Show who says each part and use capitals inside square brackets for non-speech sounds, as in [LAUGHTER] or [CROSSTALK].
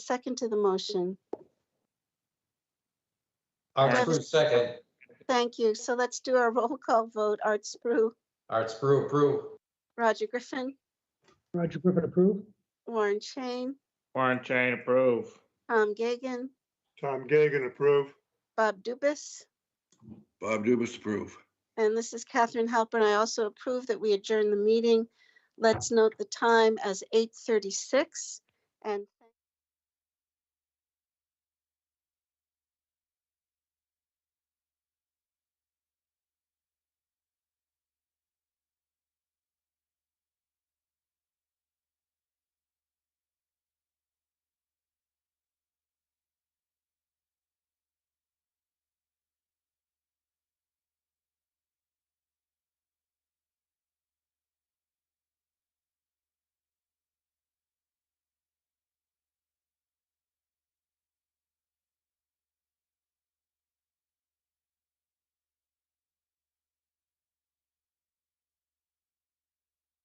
Speaker 1: second to the motion?
Speaker 2: Art
Speaker 1: Yes.
Speaker 2: Spru, second.
Speaker 1: Thank you. So let's do our [LAUGHS] roll call vote. Art Spru,
Speaker 2: Art Spru, approve.
Speaker 1: Roger Griffin,
Speaker 3: Roger Griffin approve?
Speaker 1: Warren Chain,
Speaker 4: Warren Chain approve.
Speaker 1: Tom Gagan,
Speaker 5: Tom Gagan, approve.
Speaker 1: Bob Dubus.
Speaker 6: Bob Dubus approve.
Speaker 1: And this is Catherine Halpern. I also approve that we adjourn the meeting. Let's note the time as 8:36. And